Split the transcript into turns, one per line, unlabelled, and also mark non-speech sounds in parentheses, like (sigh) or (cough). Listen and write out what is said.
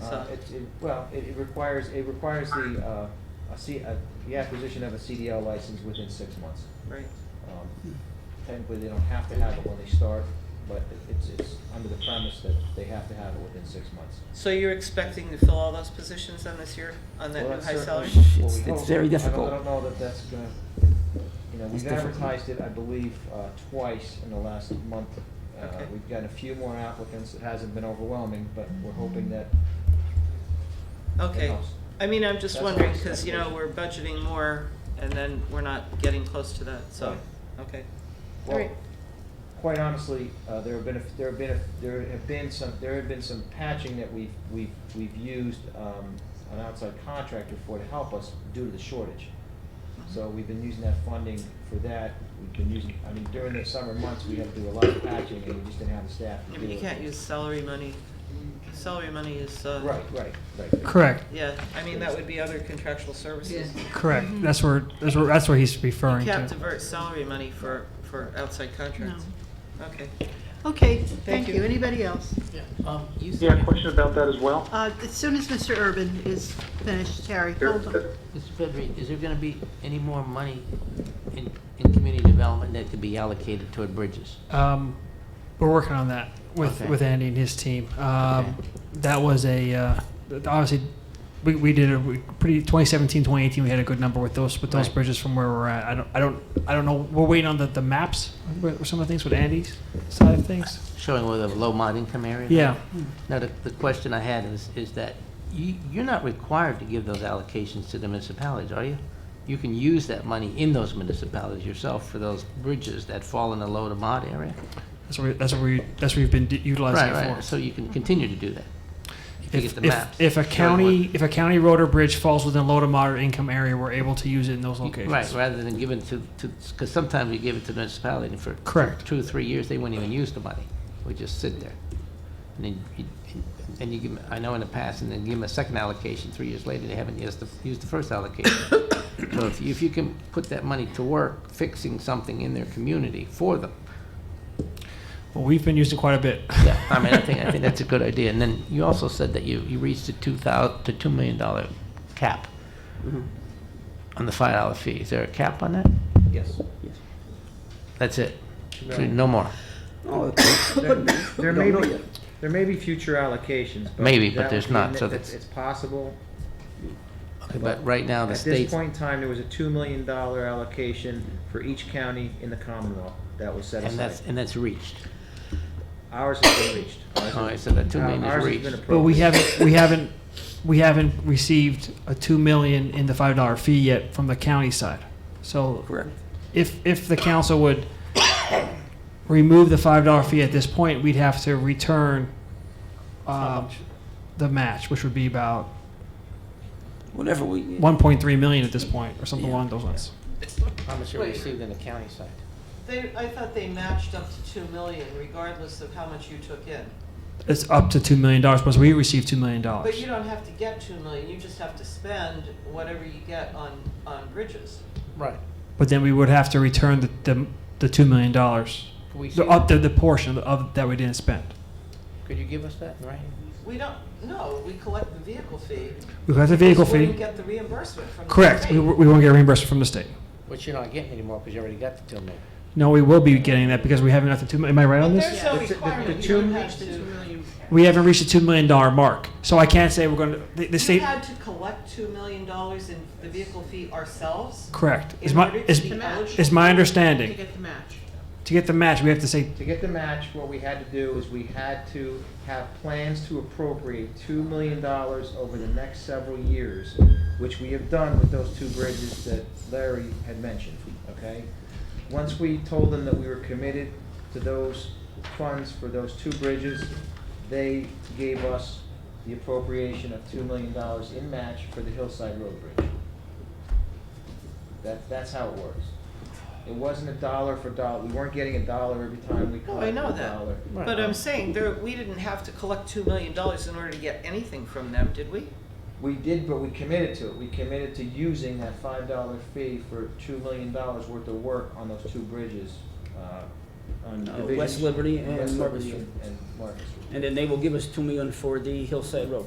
Uh,
So-
it, it, well, it it requires, it requires the, uh, a C, a, the acquisition of a CDL license within six months.
Right.
Um, Technically, they don't have to have it when they start, but it- it's, it's under the premise that they have to have it within six months.
So you're expecting to fill all those positions then this year on that
Well,
new
that's
high salary?
certainly
salary?
what we
It's- it's
hope.
very
I don't-
difficult.
I don't know that that's gonna, you know,
It's
we've
difficult.
advertised it, I believe, uh, twice in the last month. Uh,
Okay.
We've gotten a few more applicants, it hasn't been overwhelming, but we're hoping that
Okay.
in-house.
I mean, I'm just
That's what
wondering,
it's
cause you know, we're
expected.
budgeting more and then we're not getting close to that, so,
Right.
okay. All
Well,
right.
quite honestly, uh, there have been, a- there have been, a- there have been some, there have been some patching that we've, we've, we've used um, an outside contractor for to help us due to the shortage. So we've been using that funding for that, we've been using, I mean, during the summer months, we had to do a lot of patching, and we just didn't have the staff to
Yeah,
do
but
it.
you can't use salary money. Salary money is, uh.
Right, right, right.
Correct,
Yeah, I mean, that would be other contractual services.
correct.
Mm-hmm.
That's where, that's where, that's where he's
You
referring
can't
to.
divert salary money for, for outside contracts. Okay.
Okay, thank
you.
you. Anybody else?
Um, you
Yeah,
said,
question about that as well?
Uh, As soon as Mr. Urban is finished, Terry, hold on.
Mr. Pedri, is there gonna be any more money in, in community development that could be allocated toward bridges?
Um, we're working on that with,
Okay.
with Andy and his team. Um,
Okay.
that was a, uh, obviously, we, we did a we pretty, 2017, 2018, we had a good number with those, with those
Right.
bridges from where we're at. I don't, I don't, I don't know, we're waiting on the, the maps, with some of the things with Andy's side of things.
Showing where the low mod income area?
Yeah,
Now, the, the question I had is, is that you, you're not required to give those allocations to the municipalities, are you? You can use that money in those municipalities yourself for those bridges that fall in the low to mod area?
that's where, that's where we, that's where we've been utilizing
Right,
it for.
right, so you can continue to do that. If you get
If,
the maps.
if, if a
showing
county, if a county road or bridge falls within low to moderate income area, we're able to use it in those
what-
locations.
Right, rather than giving to, to, because sometimes you give it to the municipality and for
Correct.
two or three years, they wouldn't even use the money. It would just sit there. And then, you- and you give, 'em- I know in the past, and then give them a second allocation, three years later, they haven't used the, used the first
(coughs)
allocation. So if you, if you can put that money to work fixing something in their community for them,
Well, we've been using quite a bit.
(laughs) yeah, I mean, I think, I think that's a good idea. And then you also said that you, you reached the two thousand, the two million dollar cap on the five dollar fee. Is there a cap on that?
Yes.
That's it? So No more?
There may be, there may be future allocations, but.
Maybe, but
that
there's
would be
not,
in-
so
it's-
that's-
It's possible.
Okay, but right now, the
At this
state's
point in time, there was a two million dollar allocation for each county in the Commonwealth that was set
And that's,
aside.
and that's reached.
Ours has been reached. Ours
All right,
has-
so that two million
Ours
is
has been
(laughs)
reached.
But we
appropriated.
haven't, we haven't, we haven't received a two million in the five dollar fee yet from the county side. So. Correct. If, if the council would remove the five dollar fee at this point, we'd have to return, um, the match, which would be about
Whatever we.
one point three million at this point, or something along those lines.
How much
are we received
in the county side?
They, I thought they matched up to two million regardless of how much you took in.
It's up to two million dollars, plus we receive two million dollars.
But you don't have to get two million, you just have to spend whatever you get on, on bridges.
Right.
But then we would have to return the, the, the two million dollars,
Can we see
the, up the, the portion of, that we didn't spend.
that? Could you give us that, right?
We don't, no, we collect the vehicle fee.
We got the vehicle
We wouldn't
fee,
get the reimbursement from the
correct,
state.
we, we won't get reimbursed from the state.
Which you're not getting anymore because you already got the two million.
No, we will be getting that because we haven't got the two, am I right on
But
this?
there's no
The- the- the
requirement, you
two-
don't have to,
We haven't reached the two million dollar mark, so I can't say we're gonna, the, the
you
state,
had to collect two million dollars in the vehicle fee ourselves?
correct. Is
in
my,
order to
is,
be eligible?
is my understanding,
get the match.
to get the match, we have to say,
To get the match, what we had to do is we had to have plans to appropriate two million dollars over the next several years, which we have done with those two bridges that Larry had mentioned, okay? Once we told them that we were committed to those funds for those two bridges, they gave us the appropriation of two million dollars in match for the Hillside Road Bridge. That, that's how it works. It wasn't a dollar for dollar, we weren't getting a dollar every time we
No, I
collected a dollar.
know that. But I'm saying, there, we didn't have to collect two million dollars in order to get anything from them, did we?
We did, but we committed to it. We committed to using that five dollar fee for two million dollars worth of work on those two bridges, uh, on
Uh,
Division.
West Liberty and
West
Market
Liberty
Street.
and- and Market Street.
And then they will give us two million for the Hillside Road.